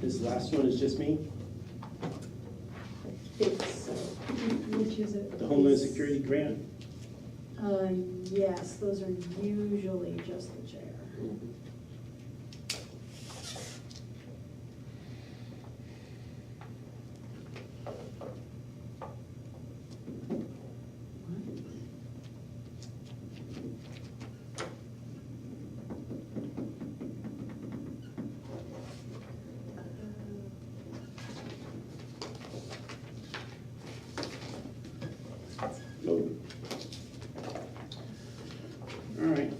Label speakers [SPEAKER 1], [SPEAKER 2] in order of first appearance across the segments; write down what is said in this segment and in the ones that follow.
[SPEAKER 1] this last one is just me,
[SPEAKER 2] It's, uh, which is it?
[SPEAKER 1] the Homeland Security grant.
[SPEAKER 2] Uh, yes, those are usually just the chair. Uh,
[SPEAKER 1] All right.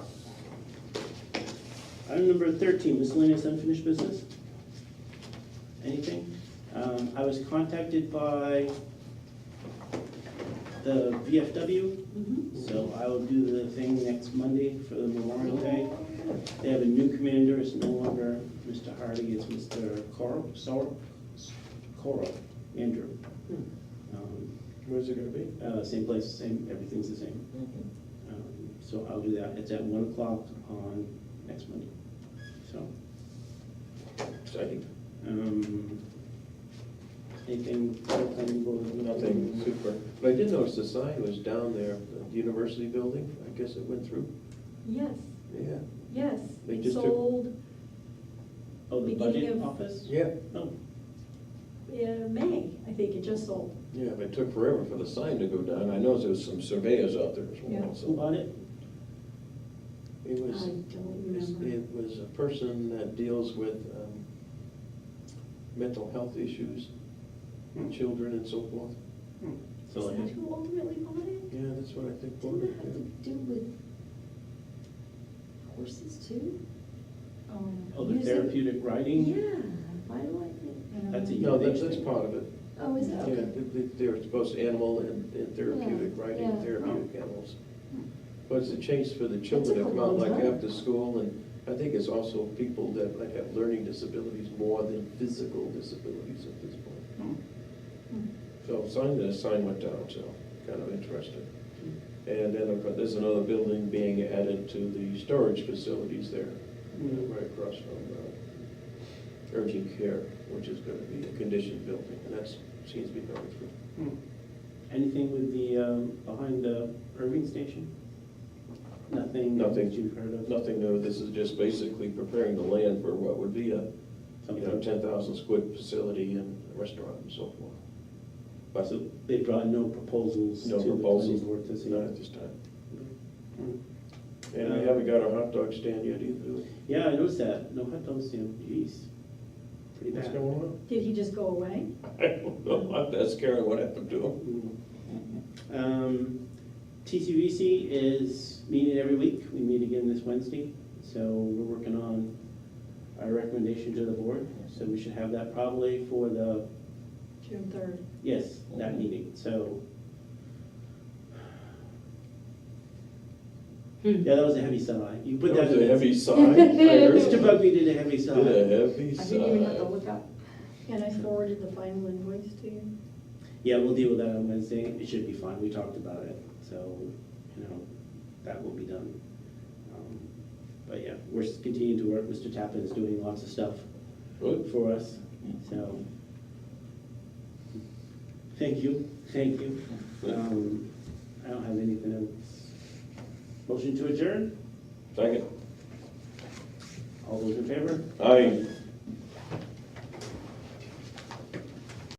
[SPEAKER 1] Item number thirteen, miscellaneous unfinished business? Anything? Um, I was contacted by the VFW,
[SPEAKER 2] Mhm.
[SPEAKER 1] so I will do the thing next Monday for the Memorial Day. They have a new commander, it's no longer Mr. Hardy, it's Mr. Coral, Sorrel, Coral, Andrew. Um,
[SPEAKER 3] Where's it gonna be?
[SPEAKER 1] uh, same place, same, everything's the same. Um, So I'll do that, it's at one o'clock on next Monday, so.
[SPEAKER 3] Exciting.
[SPEAKER 1] um, Anything, anything going?
[SPEAKER 3] Nothing super, but I did notice the sign was down there, the university building, I guess it went through.
[SPEAKER 2] Yes,
[SPEAKER 3] Yeah.
[SPEAKER 2] yes,
[SPEAKER 3] They
[SPEAKER 2] it
[SPEAKER 3] just took-
[SPEAKER 2] sold
[SPEAKER 1] Oh, the budget
[SPEAKER 2] Beginning of-
[SPEAKER 1] office?
[SPEAKER 3] Yeah.
[SPEAKER 1] Oh,
[SPEAKER 2] in uh, May, I think it just sold.
[SPEAKER 3] Yeah, but it took forever for the sign to go down, I noticed there was some surveyors out there as
[SPEAKER 2] Yeah.
[SPEAKER 3] well,
[SPEAKER 1] who
[SPEAKER 3] so.
[SPEAKER 1] bought it?
[SPEAKER 3] It
[SPEAKER 2] I
[SPEAKER 3] was,
[SPEAKER 2] don't
[SPEAKER 3] it's-
[SPEAKER 2] remember.
[SPEAKER 3] it was a person that deals with um, mental health issues,
[SPEAKER 1] Hmm.
[SPEAKER 3] children and so forth.
[SPEAKER 1] So,
[SPEAKER 2] Is that who ultimately bought it?
[SPEAKER 3] Yeah, that's what I think.
[SPEAKER 4] Didn't
[SPEAKER 3] voted,
[SPEAKER 4] it have to do with horses too? Um,
[SPEAKER 1] oh, the
[SPEAKER 4] music?
[SPEAKER 1] therapeutic
[SPEAKER 4] Yeah,
[SPEAKER 1] writing?
[SPEAKER 4] why do I think?
[SPEAKER 2] I um, don't
[SPEAKER 1] That's a
[SPEAKER 2] know.
[SPEAKER 3] yeah. No, that's, that's part of it.
[SPEAKER 4] Oh, is
[SPEAKER 3] Yeah,
[SPEAKER 4] that?
[SPEAKER 3] they- they- they're supposed to animal and and therapeutic,
[SPEAKER 4] Yeah,
[SPEAKER 3] writing
[SPEAKER 4] yeah.
[SPEAKER 3] therapeutic animals. But it's a chance for the children
[SPEAKER 4] took
[SPEAKER 3] to
[SPEAKER 4] a
[SPEAKER 3] come
[SPEAKER 4] long
[SPEAKER 3] out like
[SPEAKER 4] time.
[SPEAKER 3] after school, and I think it's also people that might have learning disabilities more than physical disabilities at this point.
[SPEAKER 1] Hmm.
[SPEAKER 3] So sign, the sign went down, so kind of interesting. And then of course, there's another building being added to the storage facilities there,
[SPEAKER 1] Mm.
[SPEAKER 3] right across from uh, urgent care, which is gonna be a conditioned building, and that's, seems to be going through.
[SPEAKER 1] Hmm. Anything with the, um, behind the Irving Station? Nothing?
[SPEAKER 3] Nothing.
[SPEAKER 1] that You've heard of?
[SPEAKER 3] Nothing new, this is just basically preparing the land for what would be a, you know,
[SPEAKER 1] Something?
[SPEAKER 3] ten thousand square facility and restaurant and so forth. But
[SPEAKER 1] So they brought no proposals to
[SPEAKER 3] No
[SPEAKER 1] the planning
[SPEAKER 3] proposals.
[SPEAKER 1] board to see?
[SPEAKER 3] not at this time.
[SPEAKER 1] Hmm.
[SPEAKER 3] And we haven't got a hot dog stand yet either, do we?
[SPEAKER 1] Yeah, I noticed that. No hot dogs, Sam. Jeez. Pretty
[SPEAKER 3] What's
[SPEAKER 1] bad.
[SPEAKER 3] going on?
[SPEAKER 2] Did he just go away?
[SPEAKER 3] I don't know, I'm asked Karen what happened to him.
[SPEAKER 1] Mm. Um, TCVC is meeting every week. We meet again this Wednesday. So we're working on our recommendation to the board. So we should have that probably for the,
[SPEAKER 2] June third.
[SPEAKER 1] yes, that meeting. So. Yeah, that was a heavy sigh. You put that.
[SPEAKER 3] was a
[SPEAKER 1] in-
[SPEAKER 3] heavy sigh. I heard
[SPEAKER 1] Mr.
[SPEAKER 3] it.
[SPEAKER 1] Bugby did a heavy sigh.
[SPEAKER 3] Did a heavy
[SPEAKER 4] I didn't even have to
[SPEAKER 3] sigh.
[SPEAKER 4] look up.
[SPEAKER 2] And I forwarded the final invoice to you.
[SPEAKER 1] Yeah, we'll deal with that on Wednesday. It should be fine. We talked about it, so, you know, that will be done. Um, But yeah, we're s- continuing to work. Mr. Tappan is doing lots of stuff
[SPEAKER 3] Good.
[SPEAKER 1] for us, so. Thank you, thank you. Um, I don't have anything else. Motion to adjourn?
[SPEAKER 3] Second.
[SPEAKER 1] All those in favor?
[SPEAKER 3] Aye.